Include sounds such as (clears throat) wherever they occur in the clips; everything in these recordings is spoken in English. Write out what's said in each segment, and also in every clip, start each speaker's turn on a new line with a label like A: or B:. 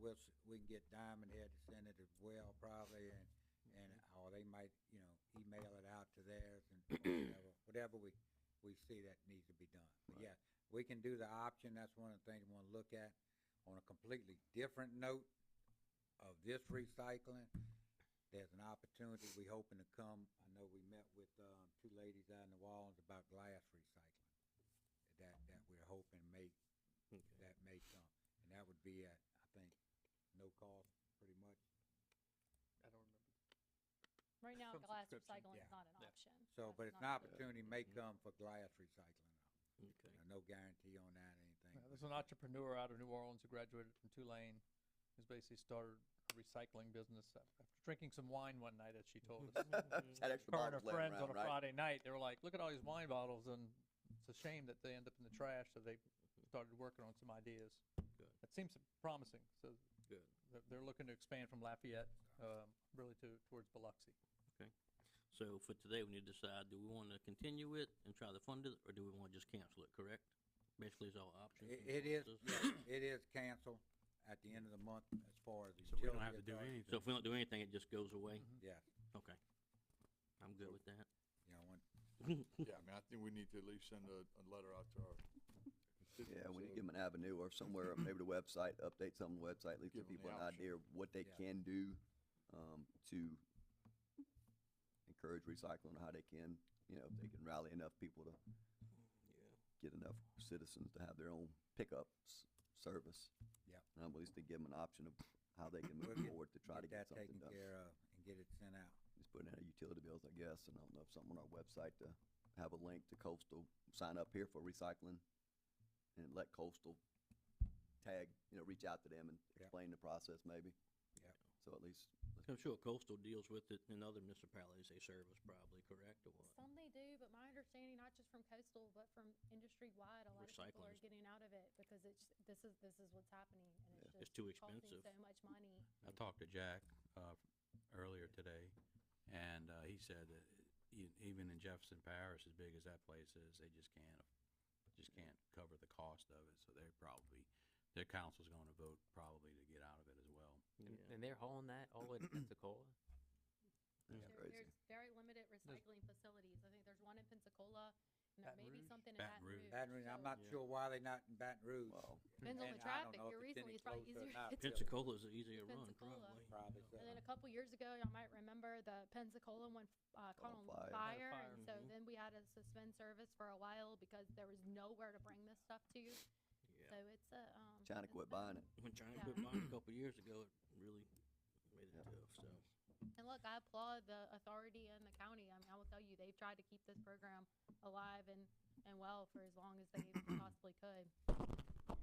A: we'll, s- we can get Diamond Head to send it as well probably and, and, or they might, you know, email it out to theirs and
B: (clears throat)
A: whatever, whatever we, we see that needs to be done. But
B: Right.
A: yeah, we can do the option, that's one of the things we wanna look at. On a completely different note of this recycling, there's an opportunity we hoping to come, I know we met with, um, two ladies out in the walls about glass recycling. That, that we're hoping may
B: Okay.
A: that may come, and that would be at, I think, no cost, pretty much.
C: I don't remember.
D: Right now,
C: Some
D: glass
C: subscription.
D: recycling
A: Yeah.
D: is not an
C: Yeah.
D: option.
A: So,
D: That's
A: but it's an
D: not-
A: opportunity may
C: Mm-hmm.
B: Mhm.
A: come for glass recycling,
B: Okay.
A: Uh, no guarantee on that or anything.
C: Uh, There's an entrepreneur out of New Orleans who graduated from Tulane, who's basically started a recycling business a- after drinking some wine one night, as she told
E: (laughs)
C: us.
F: (laughs) It's Had extra
C: Her and her
F: bottles laying
C: friends on a
F: around, right?
C: Friday night, they were like, "Look at all these wine bottles," and it's a shame that they end up in the trash. So they started working on some ideas.
B: Good.
C: That seems promising. So
B: Good.
C: they're, they're looking to expand from Lafayette, um, really to towards Biloxi.
B: So for today, we need to decide, do we wanna continue it and try to fund it, or do we wanna just cancel it, correct? Basically, it's all options.
A: It,
B: and
A: it is,
B: choices.
A: yes, it is canceled at the end of the month as far as the
E: So we
A: utility.
E: don't have to do
A: authority.
E: (laughs) anything.
B: So if we don't do anything, it just goes away?
C: Mhm.
A: Yeah,
B: Okay. I'm good with that.
A: you know, when,
G: Yeah, I mean, I think we need to at least send a, a letter out to our.
F: Yeah,
G: constituents
F: we
G: of-
F: need to give them an avenue or somewhere, maybe the website, update something on the website, leave
G: Give 'em the
F: some people an
G: option.
F: idea of what they
A: Yeah.
F: can do, um, to encourage recycling, how they can, you know, if they can rally enough people to get enough citizens to have their own pickup s- service.
A: Yep.
F: And at least to give them an option of how they can
A: We'll
F: move
A: get-
F: forward to try to
A: get
F: get
A: that
F: something
A: taken
F: done.
A: care of and get it sent out.
F: Just putting out utility bills, I guess, and I don't know if something on our website to have a link to coastal, sign up here for recycling and let coastal tag, you know, reach out to them and
A: Yep.
F: explain the process maybe.
A: Yep.
F: So at least,
B: I'm sure coastal deals with it in other municipalities they service probably, correct, or what?
D: Some they do, but my understanding, not just from coastal, but from industry-wide, a lot of people
B: Recycling
D: are
B: is-
D: getting out of it because it's, this is, this is what's happening and it's
B: It's
D: just
B: too
D: costing
B: expensive.
D: so much money.
E: I talked to Jack, uh, earlier today, and, uh, he said that e- even in Jefferson Parish, as big as that place is, they just can't, just can't cover the cost of it, so they're probably, their council's gonna vote probably to get out of it as well.
H: And,
B: Yeah.
H: and they're hauling that all
B: (clears throat)
H: the way to Pensacola.
F: that's
D: There-
F: crazy.
D: There's very limited recycling facilities. I think there's one in Pensacola and there
C: Baton
D: may be
C: Rouge?
D: something in
E: Baton
D: Baton
E: Rouge.
D: Rouge.
A: Baton Rouge, I'm not
B: Yeah.
A: sure why they not in Baton Rouge.
F: Wow.
D: Depends on
A: And
D: the
A: I don't
D: traffic.
A: know if
D: Your
A: it's any
D: recently it's probably
A: closer or
D: easier.
A: not,
D: It's-
A: really.
B: Pensacola's an easier run,
D: Pensacola.
B: probably.
A: Probably so.
D: And then a couple years ago, y'all might remember the Pensacola one uh, caught on
F: on fire. Had a
D: fire,
C: fire.
D: and so
B: Mhm.
D: then we had to suspend service for a while because there was nowhere to bring this stuff to. So
B: Yeah.
D: it's a um,
F: China
D: it's
F: quit
D: a-
F: buying it.
B: When China
D: Yeah.
B: quit buying a couple years ago, it really made it
F: Yeah.
B: tough, so.
D: And look, I applaud the authority and the county. I mean, I will tell you, they've tried to keep this program alive and, and well for as long as they
F: (clears throat)
D: possibly could.
B: Yeah,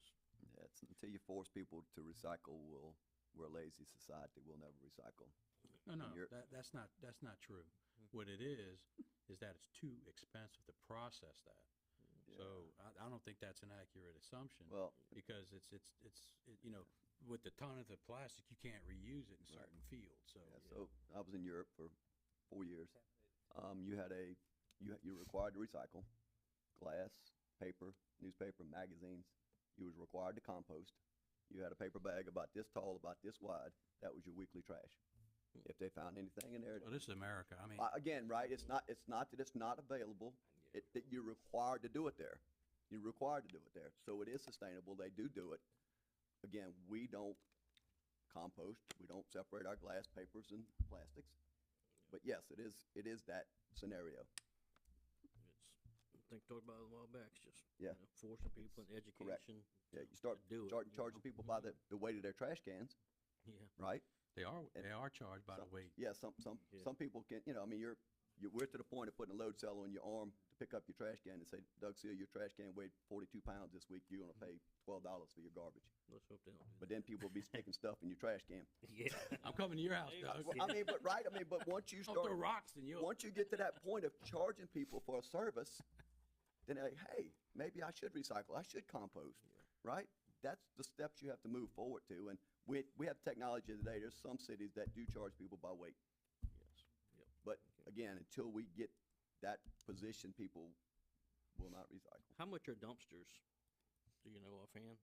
B: just,
F: Yeah, it's until you force people to recycle, we'll, we're a lazy society, we'll never recycle.
E: No, no,
F: you're-
E: that, that's not, that's not true.
F: Mm-hmm.
E: What it is, is that it's too expensive to process that.
F: Yeah.
E: So I, I don't think that's an accurate assumption.
F: Well,
E: because it's, it's, it's, it- you know, with the ton of the plastic, you can't reuse it in
F: Right.
E: certain fields, so.
F: Yeah, so I was in Europe for four years. Um, you had a, you, ha- you were required to recycle glass, paper, newspaper, magazines. You was required to compost. You had a paper bag about this tall, about this wide. That was your weekly trash. If they found anything in there,
E: Well, this is America, I mean,
F: uh, again, right, it's not, it's not that it's not available. It, that you're required to do it there. You're required to do it there. So it is sustainable. They do do it. Again, we don't compost. We don't separate our glass, papers and plastics. But yes, it is, it is that scenario.
B: it's, I think I talked about it a while back, it's just, you
F: Yeah.
B: know, forcing people in education.
F: Yeah,
B: to-
F: you start,
B: to do it,
F: start
B: you
F: charging
B: know?
F: people by the, the weight of their trash cans,
B: Yeah,
F: right?
E: they are,
F: and
E: they are charged by the
F: some-
E: weight.
F: Yeah, some, some,
B: Yeah.
F: some people can, you know, I mean, you're, you, we're to the point of putting a load cell on your arm to pick up your trash can and say, Doug Seal, your trash can weighed forty-two pounds this week, you're gonna
B: Mm-hmm.
F: pay twelve dollars for your garbage.
B: let's hope they don't do
F: But then people will be sticking stuff in your trash can.
B: that. (laughs) Yeah.
E: I'm coming to your house,
B: Hey,
E: Doug.
F: Well, I mean, but, right, I mean, but once you
E: Don't throw
F: start,
E: rocks in your,
F: once you get to that point of charging people for a service, then like, hey, maybe I should recycle, I should compost, right? That's the steps you have to move forward to, and we, we have technology today, there's some cities that do charge people by weight.
B: Yes, yep.
F: But
B: Okay.
F: again, until we get that position, people will not recycle.
B: How much are dumpsters? Do you know offhand?